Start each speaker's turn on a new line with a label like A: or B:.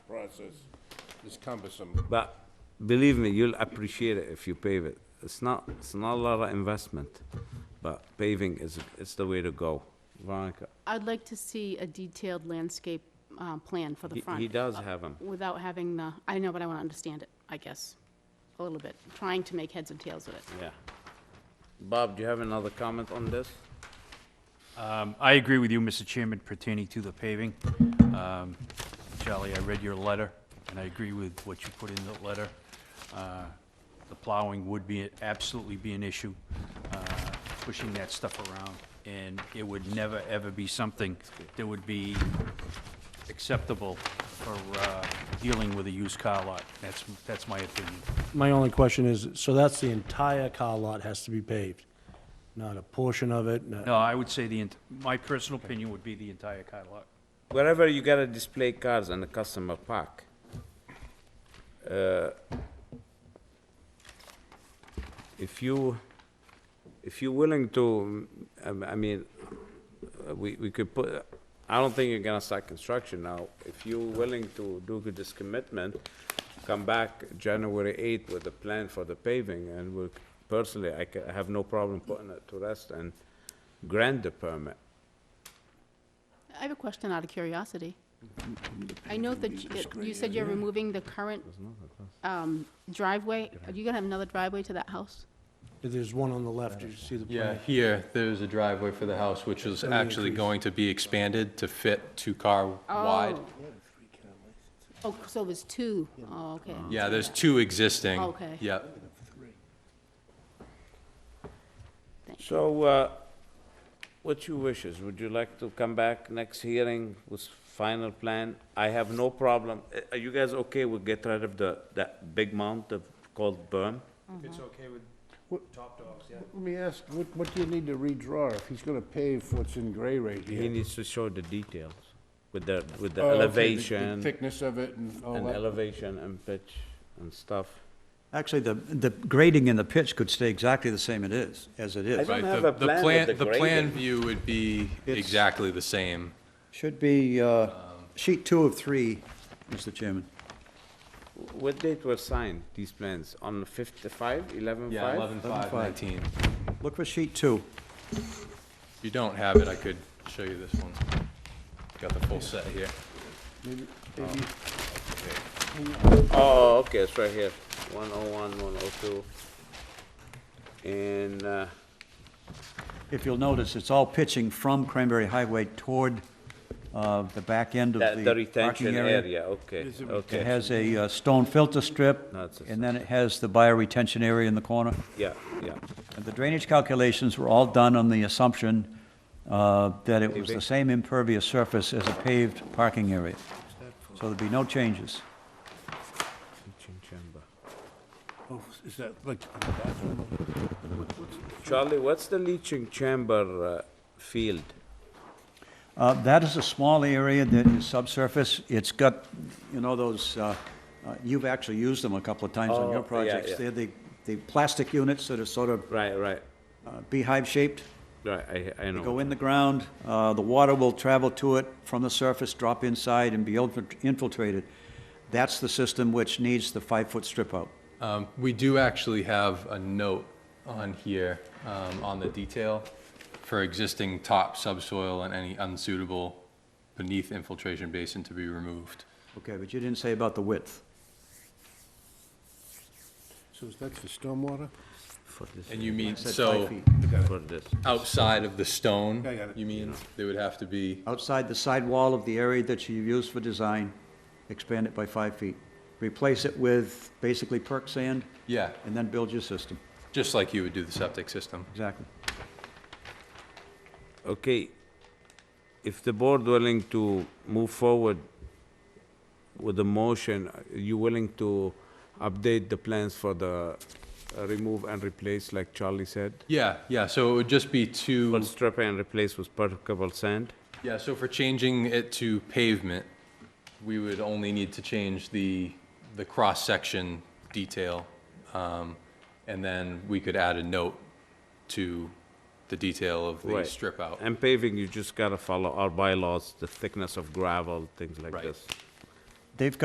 A: process is cumbersome.
B: But believe me, you'll appreciate it if you pave it. It's not, it's not a lot of investment, but paving is, it's the way to go. Veronica,
C: I'd like to see a detailed landscape uh, plan for the
B: he-
C: front.
B: he does have them.
C: Without having the, I know, but I want to understand it, I guess, a little bit, trying to make heads and tails of it.
B: Yeah. Bob, do you have another comment on this?
D: Um, I agree with you, Mr. Chairman, pertaining to the paving. Um, Charlie, I read your letter, and I agree with what you put in the letter. Uh, The plowing would be, absolutely be an issue, uh, pushing that stuff around, and it would never, ever be something that would be acceptable for uh, dealing with a used car lot. That's, that's my opinion.
E: My only question is, so that's the entire car lot has to be paved, not a portion of it?
D: No, I would say the, ent- my personal opinion would be the entire car lot.
B: Wherever you gotta display cars and the customer park, uh, if you, if you're willing to, um, I mean, uh, we, we could put, I don't think you're gonna start construction now. If you're willing to do with this commitment, come back January eighth with a plan for the paving, and we'll, personally, I ca- I have no problem putting it to rest and grant the permit.
C: I have a question out of curiosity. I know that you- that you said you're removing the current um, driveway. Are you going to have another driveway to that house?
E: There's one on the left, you see the
F: Yeah,
E: plan?
F: here, there's a driveway for the house, which is
E: Let me
F: actually
E: increase.
F: going to be expanded to fit two-car wide.
C: Oh. Oh, so there's two. Oh, okay.
F: Yeah, there's two existing.
C: Okay.
F: Yep.
B: So, uh, what's your wishes? Would you like to come back next hearing with final plan? I have no problem. Uh, Are you guys okay with get rid of the, that big mound of, called berm?
D: It's okay with top dogs, yeah?
A: Let me ask, what, what do you need to redraw if he's gonna pave what's in gray right
B: He
A: here?
B: needs to show the details with the, with the
A: Oh, okay,
B: elevation,
A: Thickness of it and all
B: and
A: that.
B: elevation and pitch and stuff.
G: Actually, the, the grading in the pitch could stay exactly the same it is, as it
B: I
G: is.
B: don't
F: Right,
B: have
F: the-
B: a plan of the
F: The plan
B: grading.
F: view would be exactly the same.
G: Should be, uh, sheet two of three, Mr. Chairman.
B: What date were signed, these plans? On fifty-five, eleven-five?
F: Yeah, 11.5, 19.
G: Look for sheet two.
F: If you don't have it, I could show you this one. Got the full set here.
B: Oh, okay, it's right here, one oh one, one oh two. And, uh,
G: If you'll notice, it's all pitching from Cranberry Highway toward, uh, the back end of
B: that,
G: the
B: the
G: parking
B: retention
G: area.
B: area, okay,
G: It
B: okay,
G: has a uh, stone filter strip,
B: No, it's a-
G: and then it has the bioretention area in the corner.
B: yeah, yeah.
G: And the drainage calculations were all done on the assumption, uh, that it was the same impervious surface as a paved parking area. So there'd be no changes.
A: Oh, is that like the bathroom?
B: Charlie, what's the leaching chamber uh, field?
G: Uh, That is a small area that is subsurface. It's got, you know, those, uh, uh, you've actually used them a couple of times on
B: Oh, yeah,
G: your projects.
B: yeah.
G: They're the, the plastic units that are sort of
B: Right, right,
G: uh, beehive-shaped.
B: right, I, I
G: They go
B: know,
G: in the ground, uh, the water will travel to it from the surface, drop inside, and be infil- infiltrated. That's the system which needs the five-foot strip out.
F: Um, We do actually have a note on here, um, on the detail for existing top subsoil and any unsuitable beneath infiltration basin to be removed.
G: Okay, but you didn't say about the width.
A: So is that the stormwater?
B: for this,
F: And you mean,
G: Said five
F: so
G: feet.
B: for this.
F: outside of the stone,
A: Yeah, I got it.
F: you mean, they would have to be,
G: Outside the side wall of the area that you use for design, expand it by five feet. Replace it with basically perk sand,
F: yeah,
G: and then build your system.
F: just like you would do the septic system.
G: Exactly.
B: Okay, if the board willing to move forward with the motion, are you willing to update the plans for the uh, remove and replace, like Charlie said?
F: Yeah, yeah, so it would just be
B: Well,
F: two,
B: strip and replace with permeable sand?
F: yeah, so for changing it to pavement, we would only need to change the, the cross-section detail. um, And then we could add a note to the detail of the
B: Right.
F: strip out.
B: And paving, you just gotta follow our bylaws, the thickness of gravel, things like
F: Right.
B: this.
G: They've got